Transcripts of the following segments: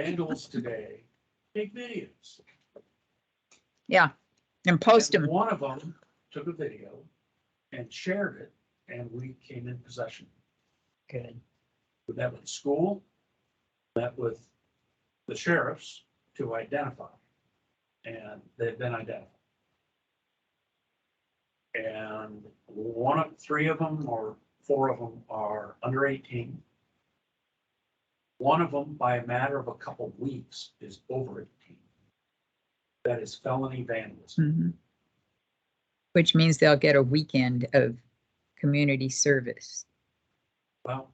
vandals today take videos. and post And them. One of them took a video and shared it, and we came in possession. Good. We met with the school, met with the sheriffs to identify. And they've been identified. And one of, three of them or four of them are under eighteen. One of them, by a matter of a couple weeks, is over eighteen. That is felony vandalism. Mhm. Which means they'll get a weekend of community service. Well.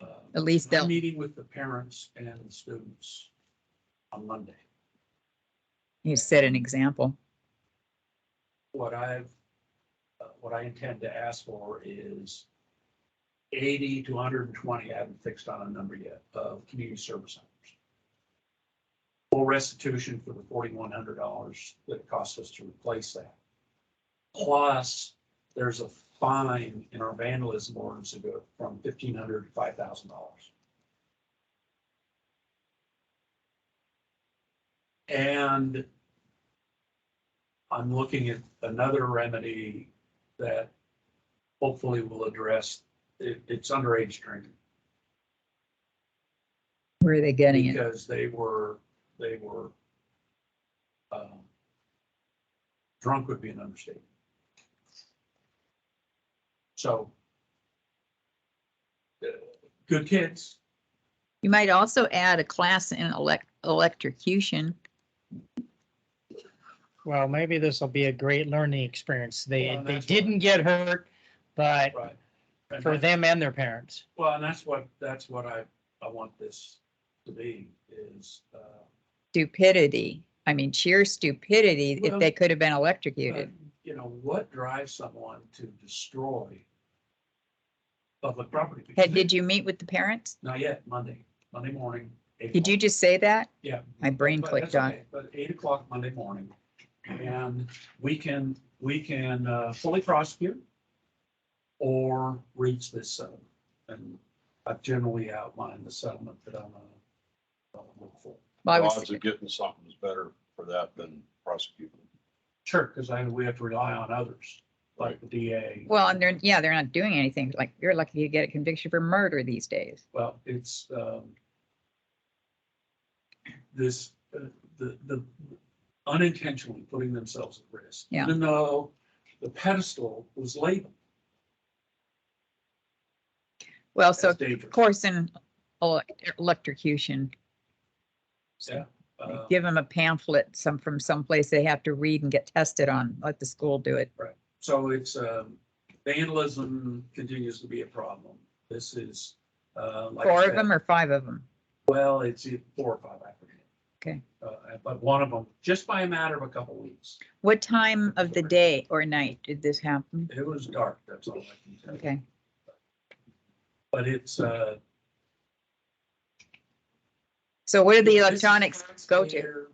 uh, At least I'm they'll, meeting with the parents and the students on Monday. you set an example. What I've, uh, what I intend to ask for is eighty to hundred and twenty, I haven't fixed on a number yet, of community service hours. Full restitution for the forty-one hundred dollars that it costs us to replace that. Plus, there's a fine in our vandalism ordinance to go from fifteen hundred to five thousand dollars. And I'm looking at another remedy that hopefully will address, it, it's underage drinking. Where are they getting it? Because they were, they were, um, drunk would be an understatement. So, uh, good kids, You might also add a class in elec- electrocution. Well, maybe this will be a great learning experience. Well, They, and they that's what- didn't get hurt, but right? And for that- them and their parents. Well, and that's what, that's what I, I want this to be, is, uh, stupidity. I mean, sheer stupidity if Well- they could have been But, electrocuted. You know, what drives someone to destroy public property? Had, did you meet with the parents? Not yet, Monday, Monday morning. eight Did you o'clock. just say that? Yeah. My brain But clicked that's on. okay. But eight o'clock Monday morning, and we can, we can uh, fully prosecute or reach this settlement. And I've generally outlined the settlement that I'm gonna I'm gonna look for. Well, I The was, odds of getting something is better for that than prosecuting. Sure, because I, we have to rely on others, like the DA. well, and they're, yeah, they're not doing anything. Like, you're lucky to get a conviction for murder these days. Well, it's, um, this, uh, the, the unintentionally putting themselves at risk. Yeah. Even though the pedestal was labeled Well, so as of dangerous. course in ele- electrocution. Yeah, uh, Give them a pamphlet, some from someplace they have to read and get tested on, let the school do it. So it's, um, vandalism continues to be a problem. This is, uh, like I Four said, of them or five of them? Well, it's either four or five, I forget. Okay. Uh, but one of them, just by a matter of a couple weeks, What time of the day or night did this happen? it was dark, that's all I can tell you. Okay, But it's, uh, so where did the This is electronics go to? taxpayer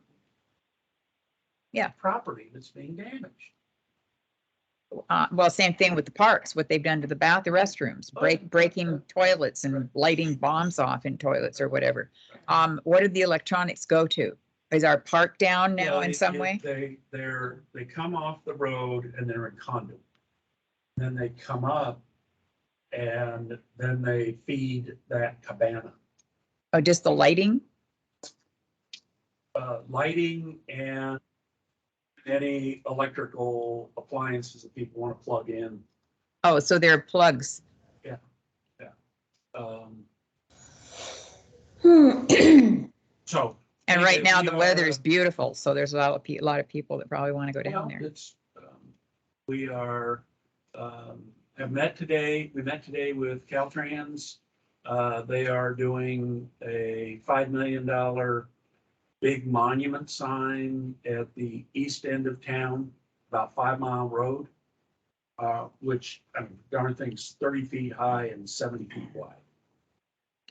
Yeah. Property that's being damaged. Uh, well, same thing with the parks, what they've done to the bath, the restrooms, Oh, break, breaking toilets and lighting bombs off in toilets or whatever. Um, what did the electronics go to? Is our park down now Well, in it- some it- way? They, they're, they come off the road and they're in conduit. Then they come up and then they feed that cabana. Oh, just the lighting? Uh, lighting and any electrical appliances that people want to plug in. Oh, so there are plugs. Um, Hmm. so. And right now the We are- weather is beautiful, so there's a lot of, pe- a lot of people that probably want to go down Well, there. It's, um, we are, um, have met today, we met today with Caltrans. Uh, they are doing a five million dollar big monument sign at the east end of town, about five mile road. Uh, which, I mean, darn thing's thirty feet high and seventy feet wide.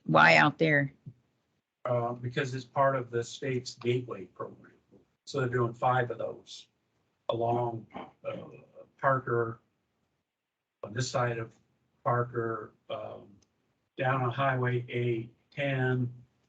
Why out there? Uh, because it's part of the state's gateway program. So they're doing five of those along uh, Parker, on this side of Parker, um, down on Highway eight, ten,